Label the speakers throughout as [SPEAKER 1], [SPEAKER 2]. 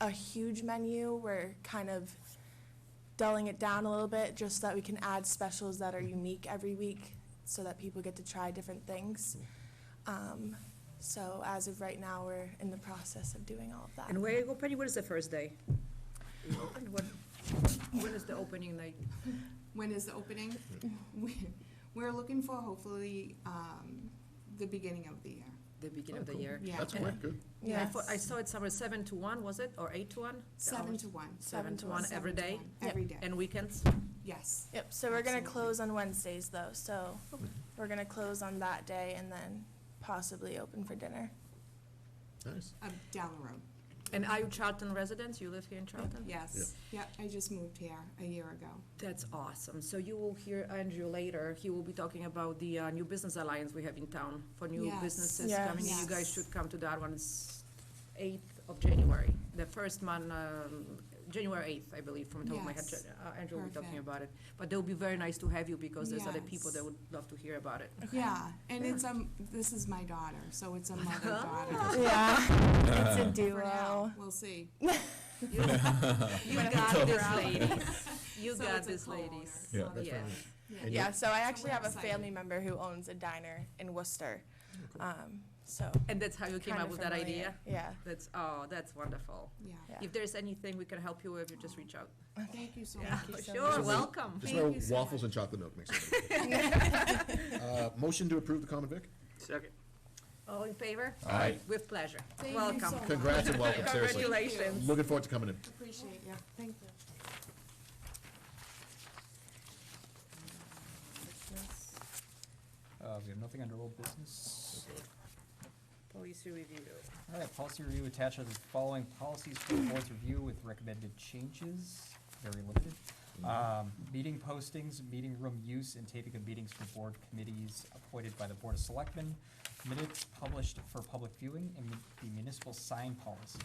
[SPEAKER 1] a huge menu. We're kind of dulling it down a little bit just so that we can add specials that are unique every week so that people get to try different things. Um, so as of right now, we're in the process of doing all of that.
[SPEAKER 2] And where you go, Penny, what is the first day? And what, when is the opening night?
[SPEAKER 3] When is the opening? We- We're looking for hopefully um, the beginning of the year.
[SPEAKER 2] The beginning of the
[SPEAKER 4] Oh, cool.
[SPEAKER 2] year?
[SPEAKER 3] Yeah.
[SPEAKER 4] That's quick, good.
[SPEAKER 2] Yeah, I
[SPEAKER 1] Yes.
[SPEAKER 2] thought, I saw it somewhere, seven to one, was it, or eight to one? The
[SPEAKER 3] Seven
[SPEAKER 2] hours?
[SPEAKER 3] to one.
[SPEAKER 2] Seven to
[SPEAKER 1] to
[SPEAKER 2] one
[SPEAKER 1] one.
[SPEAKER 2] every
[SPEAKER 3] Seven to
[SPEAKER 2] day?
[SPEAKER 3] one, Every day,
[SPEAKER 2] And weekends?
[SPEAKER 3] yes.
[SPEAKER 1] Yep, so we're gonna
[SPEAKER 3] Absolutely.
[SPEAKER 1] close on Wednesdays though, so
[SPEAKER 3] Mm-hmm.
[SPEAKER 1] we're gonna close on that day and then possibly open for dinner.
[SPEAKER 4] Nice.
[SPEAKER 3] Uh, Down the road,
[SPEAKER 2] And are you Charlton residents? You live here in Charlton?
[SPEAKER 3] yes. Yep, I just moved here a year ago.
[SPEAKER 2] That's awesome. So you will hear Andrew later. He will be talking about the uh, new business alliance we have in town for new
[SPEAKER 3] Yes.
[SPEAKER 2] businesses
[SPEAKER 1] Yes.
[SPEAKER 2] coming. in. You
[SPEAKER 3] Yes.
[SPEAKER 2] guys should come to that one. It's 8th of January, the first month, um, January 8th, I believe, from the top of my head.
[SPEAKER 3] Yes.
[SPEAKER 2] Uh, Andrew will be talking
[SPEAKER 3] Perfect.
[SPEAKER 2] about it. But they'll be very nice to have you because there's other people
[SPEAKER 3] Yes.
[SPEAKER 2] that would love to hear about it.
[SPEAKER 3] Yeah, and it's, um, this is my daughter, so it's a
[SPEAKER 2] Oh.
[SPEAKER 3] mother-daughter.
[SPEAKER 1] Yeah, it's a
[SPEAKER 3] For now,
[SPEAKER 1] duo.
[SPEAKER 3] we'll see.
[SPEAKER 2] You got this, ladies. You
[SPEAKER 3] So
[SPEAKER 2] got
[SPEAKER 3] it's a
[SPEAKER 2] this,
[SPEAKER 3] co-owner,
[SPEAKER 2] ladies.
[SPEAKER 3] so
[SPEAKER 4] Yeah, that's
[SPEAKER 2] Yeah.
[SPEAKER 4] right.
[SPEAKER 3] Yeah.
[SPEAKER 4] And
[SPEAKER 1] Yeah, so I actually
[SPEAKER 3] we're
[SPEAKER 1] have a
[SPEAKER 3] excited.
[SPEAKER 1] family member who owns a diner in Worcester. Um, so.
[SPEAKER 2] And that's how you came
[SPEAKER 1] kinda
[SPEAKER 2] up with that
[SPEAKER 1] familiar.
[SPEAKER 2] idea?
[SPEAKER 1] Yeah.
[SPEAKER 2] That's, oh, that's wonderful.
[SPEAKER 3] Yeah,
[SPEAKER 1] Yeah.
[SPEAKER 2] If there's anything we can help you with, you just reach out.
[SPEAKER 3] thank you so much.
[SPEAKER 1] you so much.
[SPEAKER 2] Sure, welcome.
[SPEAKER 4] Just
[SPEAKER 3] Thank
[SPEAKER 4] remember
[SPEAKER 3] you so
[SPEAKER 4] waffles
[SPEAKER 3] much.
[SPEAKER 4] and chocolate milk next time. Uh, Motion to approve the common vic?
[SPEAKER 5] Second.
[SPEAKER 2] All in favor?
[SPEAKER 4] Aye.
[SPEAKER 2] With pleasure.
[SPEAKER 3] you so
[SPEAKER 2] Welcome.
[SPEAKER 3] much.
[SPEAKER 4] Congrats and welcome, seriously.
[SPEAKER 2] Congratulations.
[SPEAKER 4] Looking forward to coming in.
[SPEAKER 3] Appreciate you, thank you.
[SPEAKER 6] Uh, we have nothing under old business.
[SPEAKER 2] Policy review.
[SPEAKER 6] All right, policy review attached are the following policies for the board's review with recommended changes, very limited. Um, meeting postings, meeting room use, and taping of meetings for board committees appointed by the Board of Selectmen, minutes published for public viewing, and the municipal sign policy.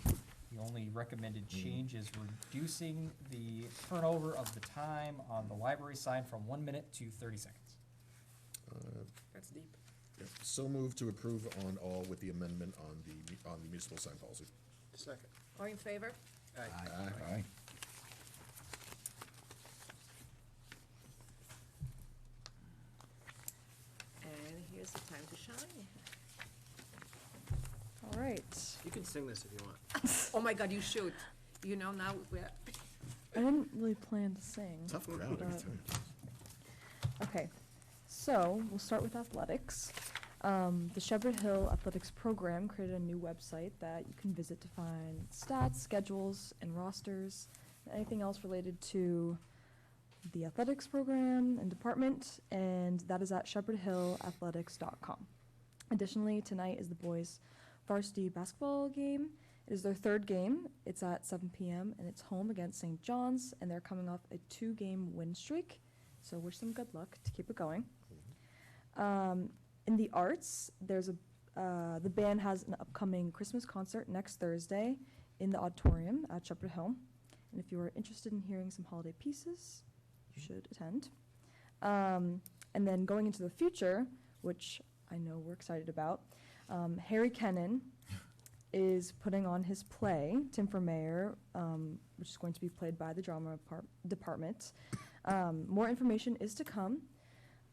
[SPEAKER 6] The only recommended change is reducing the turnover of the time on the library sign from one minute to thirty seconds.
[SPEAKER 2] That's deep.
[SPEAKER 4] So moved to approve on all with the amendment on the, on the municipal sign policy. Ah,
[SPEAKER 5] Second.
[SPEAKER 2] All in favor?
[SPEAKER 4] Aye.
[SPEAKER 2] And here's the time to shine.
[SPEAKER 7] All right.
[SPEAKER 5] You can sing this if you want.
[SPEAKER 2] Oh my God, you should. You know, now we're,
[SPEAKER 7] I didn't really plan to sing.
[SPEAKER 4] Tough crowd every
[SPEAKER 7] but-
[SPEAKER 4] time.
[SPEAKER 7] Okay, so we'll start with athletics. Um, the Shepherd Hill Athletics Program created a new website that you can visit to find stats, schedules, and rosters, and anything else related to the athletics program and department, and that is at shepherdhillathletics.com. Additionally, tonight is the boys' varsity basketball game. It is their third game. It's at 7 p.m., and it's home against St. John's, and they're coming off a two game win streak. So, wish them good luck to keep it going. Um, in the arts, there's a uh, the band has an upcoming Christmas concert next Thursday in the auditorium at Shepherd Hill. And if you are interested in hearing some holiday pieces, you should attend. Um, and then going into the future, which I know we're excited about, um, Harry Kennan is putting on his play, Tim for Mayor, um, which is going to be played by the drama par- department. Um, more information is to come,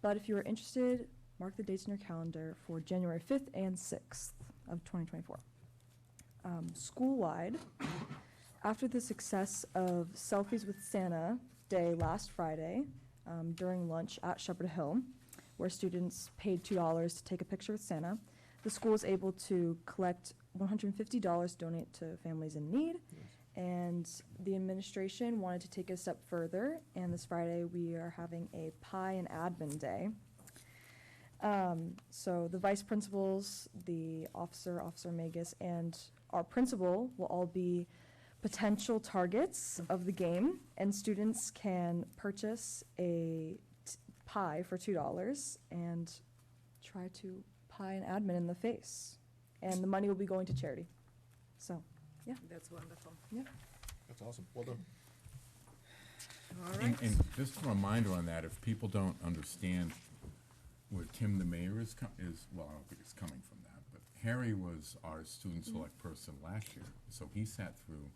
[SPEAKER 7] but if you are interested, mark the dates in your calendar for January 5th and 6th of 2024. Um, school-wide, after the success of Selfies with Santa Day last Friday um, during lunch at Shepherd Hill, where students paid $2 to take a picture with Santa, the school was able to collect $150 to donate to families in need. And the administration wanted to take it a step further, and this Friday we are having a pie and admin day. Um, so the vice principals, the officer, Officer Magus, and our principal will all be potential targets of the game, and students can purchase a t- pie for two dollars and try to pie an admin in the face, and the money will be going to charity. So, yeah,
[SPEAKER 2] that's wonderful.
[SPEAKER 7] yeah.
[SPEAKER 4] That's awesome. Well done.
[SPEAKER 2] All
[SPEAKER 8] And,
[SPEAKER 2] right.
[SPEAKER 8] and just a reminder on that, if people don't understand where Tim the mayor is, co- is, well, I don't think it's coming from that, but Harry was our student select person last year, so he sat through